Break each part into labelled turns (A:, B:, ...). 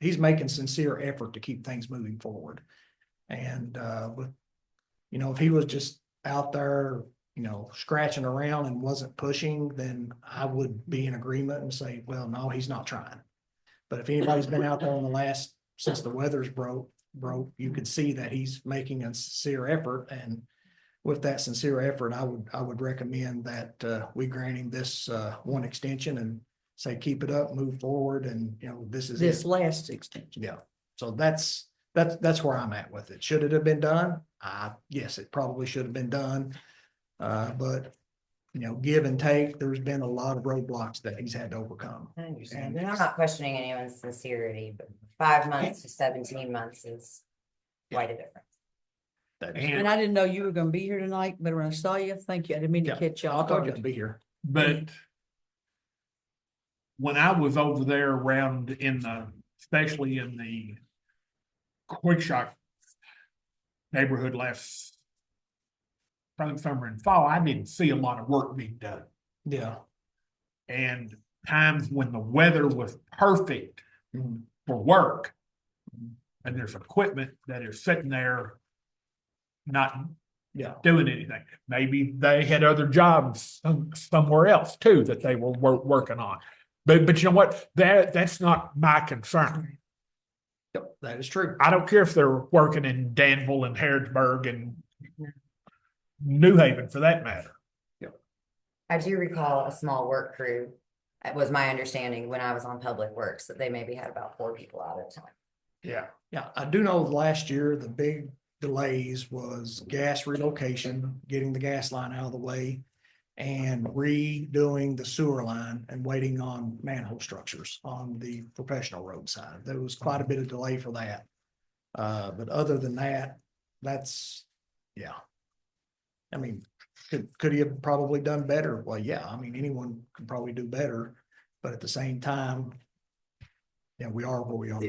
A: he's making sincere effort to keep things moving forward. And, uh, with, you know, if he was just out there, you know, scratching around and wasn't pushing, then I would be in agreement and say, well, no, he's not trying. But if anybody's been out there in the last, since the weather's broke, broke, you could see that he's making a sincere effort and with that sincere effort, I would, I would recommend that, uh, we grant him this, uh, one extension and say, keep it up, move forward, and, you know, this is. it.
B: this last extension.
A: Yeah, so that's, that's, that's where I'm at with it. Should it have been done? Uh, yes, it probably should have been done. Uh, but, you know, give and take, there's been a lot of roadblocks that he's had to overcome.
C: I understand, and I'm not questioning anyone's sincerity, but five months to seventeen months is quite a difference.
B: And I didn't know you were gonna be here tonight, but when I saw you, thank you. I didn't mean to
A: Yeah,
B: catch you
A: I'll
B: off
A: talk to
B: guard.
A: be here.
D: But when I was over there around in the, especially in the quick shot neighborhood last probably summer and fall, I didn't see a lot of work being done.
A: Yeah.
D: And times when the weather was perfect
A: Mhm.
D: for work. And there's equipment that is sitting there not
A: Yeah,
D: doing anything. Maybe they had other jobs some- somewhere else too that they were wor- working on. But but you know what? That that's not my concern.
A: Yep, that is true.
D: I don't care if they're working in Danville and Harrodsburg and New Haven for that matter.
C: I do recall a small work crew, it was my understanding when I was on Public Works, that they maybe had about four people out at a time.
D: Yeah.
A: Yeah, I do know last year, the big delays was gas relocation, getting the gas line out of the way. And redoing the sewer line and waiting on manhole structures on the professional road side. There was quite a bit of delay for that. Uh, but other than that, that's, yeah. I mean, could, could he have probably done better? Well, yeah, I mean, anyone could probably do better, but at the same time. Yeah, we are where we are.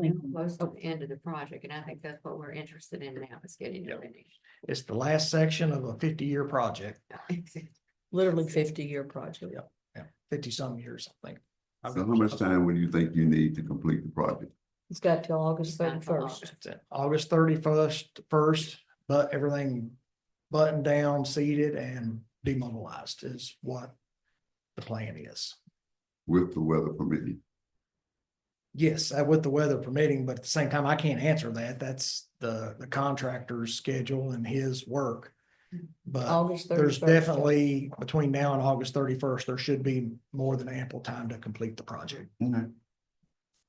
E: think we're close to the end of the project, and I think that's what we're interested in now, is getting
A: Yep.
E: it finished.
A: It's the last section of a fifty-year project,
B: Literally fifty-year project.
A: Yeah. fifty-some years, I think. I've
F: So
A: got-
F: how much time would you think you need to complete the project?
B: It's got till August
E: It's not till
B: thirty-first.
A: That's it. August thirty-first, first, but everything buttoned down, seated and demobilized is what the plan is.
F: With the weather permitting,
A: Yes, uh, with the weather permitting, but at the same time, I can't answer that. That's the, the contractor's schedule and his work. But
B: August
A: Uh, there's
B: thirty-first.
A: definitely, between now and August thirty-first, there should be more than ample time to complete the project.
F: you know?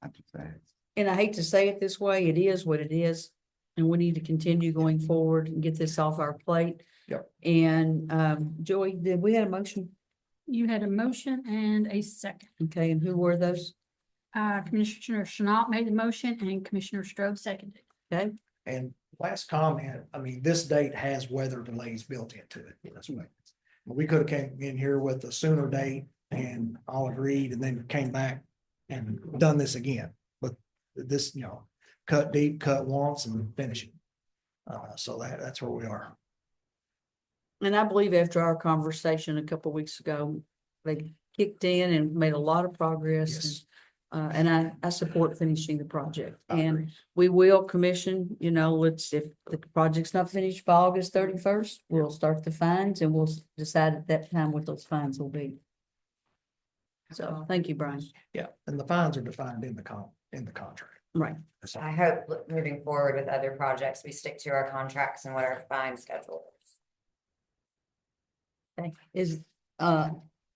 F: I just asked.
B: And I hate to say it this way, it is what it is. And we need to continue going forward and get this off our plate.
A: Yep.
B: And um, Joey, did we had a motion?
G: You had a motion and a second.
B: Okay, and who were those?
G: Uh, Commissioner Chenault made the motion and Commissioner Strode seconded.
A: And last comment, I mean, this date has weather delays built into it. That's what- We could have came in here with a sooner date and all agreed and then came back and done this again. But this, you know, cut deep, cut once and finish it. Uh, so that, that's where we are.
B: And I believe after our conversation a couple weeks ago, they kicked in and made a lot of progress. and
A: Yes.
B: Uh, and I, I support finishing the project
F: I agree.
B: and we will commission, you know, let's, if the project's not finished by August thirty-first, we'll start the fines and we'll s- decide at that time what those fines will be. So, thank you, Brian.
A: Yeah, and the fines are defined in the con, in the contract.
B: Right.
A: So,
C: I hope look, moving forward with other projects, we stick to our contracts and what our fine schedule is.
B: Is, uh,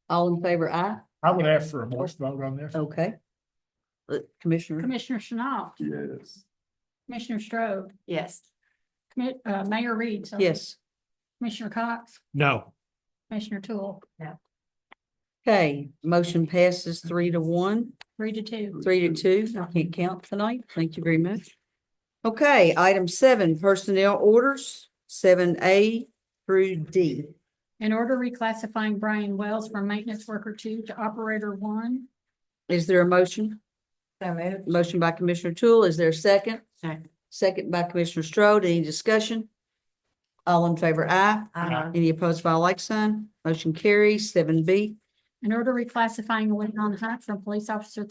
B: all in favor, aye?
D: I would ask for a voice vote on this.
B: Okay. Uh, Commissioner,
G: Commissioner Chenault,
F: Yes.
G: Commissioner Strode,
E: Yes.
G: Commi- uh, Mayor Reed. sorry,
B: yes.
G: Commissioner Cox,
D: No.
G: Commissioner Tool,
B: Okay, motion passes three to one.
G: three to two.
B: Three to two, I can't count tonight, thank you very much. Okay, item seven, personnel orders, seven A through D.
G: An order reclassifying Brian Wells from maintenance worker two to operator one.
B: Is there a motion?
C: So moved.
B: Motion by Commissioner Tool, is there a second?
E: Second.
B: Second by Commissioner Strode, any discussion? All in favor, aye.
C: Uh,
B: Any opposed by like sign? Motion carries, seven B.
G: An order reclassifying Leon Hunt from police officer